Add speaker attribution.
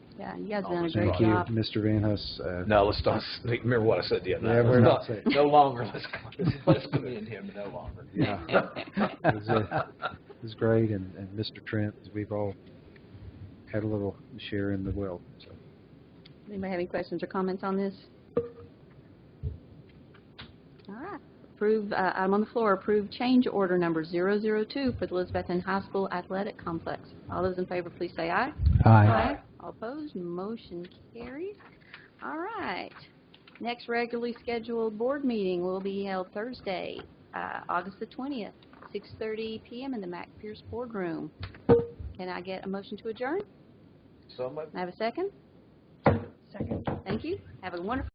Speaker 1: Yeah, you guys have done a
Speaker 2: Always
Speaker 1: great
Speaker 2: right.
Speaker 3: Thank you,
Speaker 1: job.
Speaker 3: Mr. Van Hus. Uh,
Speaker 2: No, let's not, speak- remember what I said the other night.
Speaker 3: Yeah, we're
Speaker 2: Let's
Speaker 3: not
Speaker 2: not-
Speaker 3: saying-
Speaker 2: No longer, let's, let's commend him no longer.
Speaker 3: Yeah. It was, uh, it was great, and, and Mr. Trent, we've all had a little share in the wealth, so.
Speaker 1: Anybody have any questions or comments on this? All right. Approve, uh, item on the floor, approve change order number 002 for the Elizabethton High School Athletic Complex. All those in favor, please say aye. All opposed, motion carries. All right. Next regularly scheduled board meeting will be held Thursday, uh, August the 20th, 6:30 PM in the Mac Pierce Boardroom. Can I get a motion to adjourn?
Speaker 2: So much
Speaker 1: Can I have a second? Second. Thank you. Have a wonderful